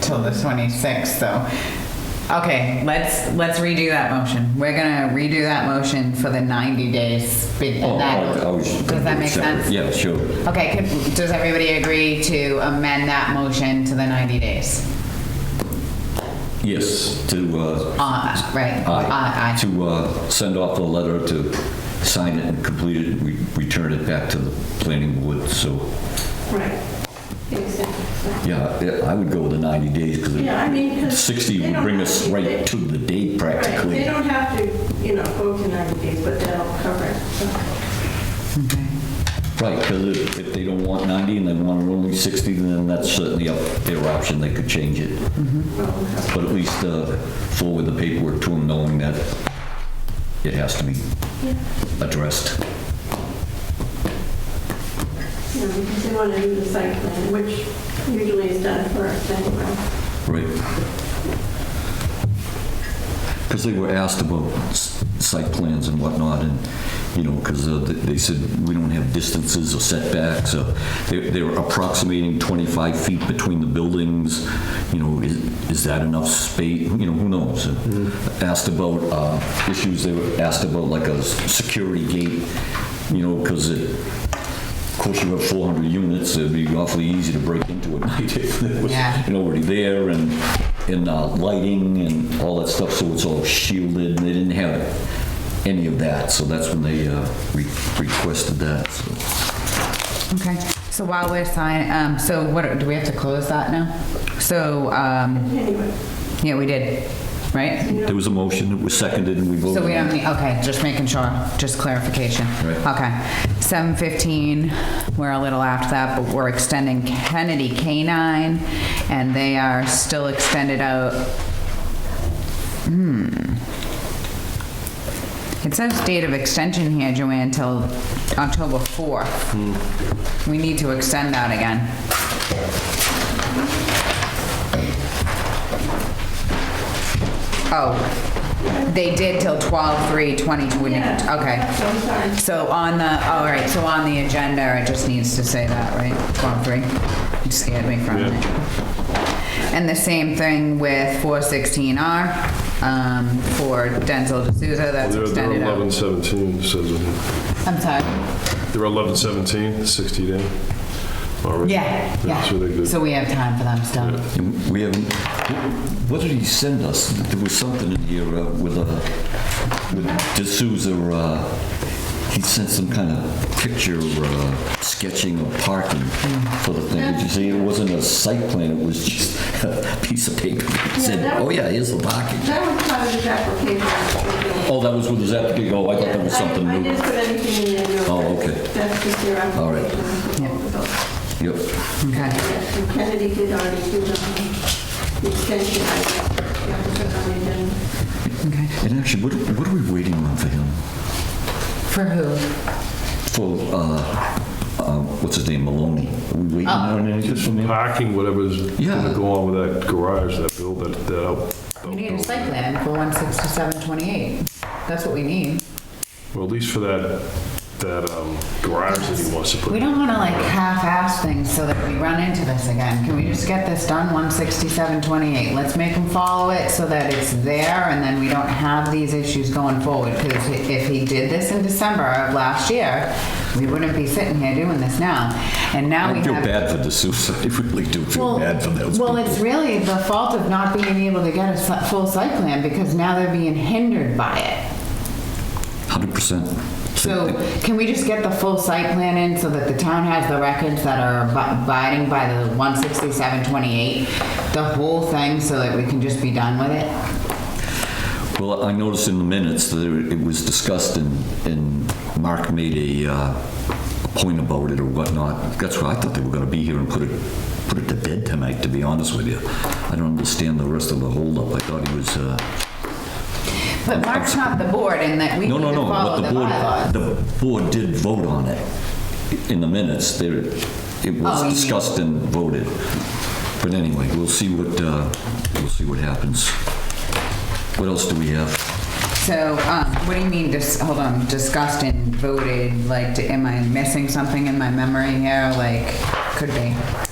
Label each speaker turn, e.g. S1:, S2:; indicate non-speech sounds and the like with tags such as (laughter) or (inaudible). S1: till the 26th, so. Okay, let's, let's redo that motion. We're gonna redo that motion for the 90 days. be-
S2: Oh,
S1: and that-
S2: oh, oh, you should-
S1: Does that make
S2: separate.
S1: sense?
S2: Yeah, sure.
S1: Okay, could- does everybody agree to amend that motion to the 90 days?
S2: Yes, to, uh,
S1: Uh, Right?
S2: aye.
S1: Uh, aye.
S2: to uh, send off the letter, to sign it and complete it, we return it back to the planning board, so,
S3: Right. Exactly.
S2: yeah, I- I would go with the 90 days,
S3: Yeah, I mean,
S2: because
S3: 'cause
S2: 60
S3: they
S2: would
S3: don't
S2: bring
S3: have
S2: us
S3: to-
S2: right to the date
S3: Right,
S2: practically.
S3: they don't have to, you know, go to 90 days, but that'll cover it. So,
S2: Right, because if, if they don't want 90 and they want it only 60, then that's certainly up their option, they could change it.
S3: well,
S2: But at least uh, forward the paperwork to them, knowing that it has to be addressed.
S3: you know, Because they want to do the site plan, which usually is done first anyway.
S2: Right. Because they were asked about s- site plans and whatnot, and, you know, because they said, we don't have distances or setbacks, or they they were approximating 25 feet between the buildings, you know, is is that enough space, you know, who knows? Asked about uh, issues, they were asked about like a s- security gate, you know, because of course you have 400 units, it'd be awfully easy to break into at (laughs) night if there was
S1: Yeah.
S2: and already there and, and uh, lighting and all that stuff, so it's all shielded, and they didn't have any of that, so that's when they uh, re- requested that, so.
S1: Okay, so while we're signing, um, so what, do we have to close that now? So, um,
S3: Anyway,
S1: yeah, we did, right?
S2: There was a motion, it was seconded, and we voted.
S1: So we
S2: on
S1: don't
S2: it.
S1: need, okay, just making sure, just clarification.
S2: Right.
S1: Okay, seven fifteen, we're a little after that, but we're extending Kennedy K-9, and they are still extended out. Hmm. It says date of extension here, Joanne, till October fourth. We need to extend that again. Oh, they did till twelve three twenty, wouldn't,
S3: Yeah.
S1: okay.
S3: so I'm sorry.
S1: So on the, all right, so on the agenda, it just needs to say that, right? Form three? You scared me from it. And the same thing with 416R um, for Denzel D'Souza, that's
S4: They're they're
S1: extended out.
S4: 11/17, says, it here.
S1: I'm sorry.
S4: they're 11/17, 60 day. All right.
S1: Yeah,
S4: So they're
S1: yeah.
S4: good.
S1: So we have time for them still.
S2: And We haven't, what did he send us? There was something in here uh, with, uh, with D'Souza, uh, he sent some kind of picture uh, sketching of parking for the thing. Did you see, it wasn't a site plan, it was just (laughs) a piece of paper that said,
S3: that-
S2: oh yeah, here's the parking.
S3: That was part of his application.
S2: Oh, that was with his application, oh, I thought that was
S3: Yeah, I-
S2: something
S3: I
S2: new.
S3: didn't put anything in there. no.
S2: Oh, okay.
S3: That's just their application.
S2: All right.
S3: Yeah.
S2: Yep.
S1: Okay,
S3: And Kennedy did already do the the extension. I guess. Yeah, I put on the agenda.
S1: okay.
S2: And actually, what, what are we waiting on for him?
S1: For who?
S2: For, uh, uh, what's his name, Maloney? Are we waiting
S3: Oh.
S2: on anything from him?
S4: Parking, whatever's
S2: Yeah.
S4: gonna go on with that garage, that build, that, that out.
S2: Oh,
S1: We need a site plan for 16728. That's what we need.
S4: Well, at least for that, that um, garage that he wants to put.
S1: We don't want to like half-ass things so that we run into this again. Can we just get this done, 16728? Let's make them follow it so that it's there and then we don't have these issues going forward. Because if he did this in December of last year, we wouldn't be sitting here doing this now. And now we
S2: I
S1: have.
S2: feel bad for D'Souza. I really do feel
S1: Well,
S2: bad for those
S1: Well,
S2: people.
S1: it's really the fault of not being able to get a si- full site plan because now they're being hindered by it.
S2: Hundred percent.
S1: So can we just get the full site plan in so that the town has the records that are ab- abiding by the 16728? The whole thing so that we can just be done with it?
S2: Well, I noticed in the minutes that it was discussed and, and Mark made a, uh, a point about it or whatnot. That's why I thought they were gonna be here and put it, put it to bed tonight, to be honest with you. I don't understand the rest of the holdup. I thought he was, uh,
S1: But Mark's not the board and that we need
S2: no,
S1: to
S2: no, no.
S1: follow
S2: But
S1: the
S2: the board,
S1: bylaws.
S2: the board did vote on it in the minutes. There, it
S1: Oh, you
S2: was
S1: mean-
S2: discussed and voted. But anyway, we'll see what, uh, we'll see what happens. What else do we have?
S1: So, um, what do you mean, dis, hold on, discussed and voted, like, d- am I missing something in my memory here? Like, could be.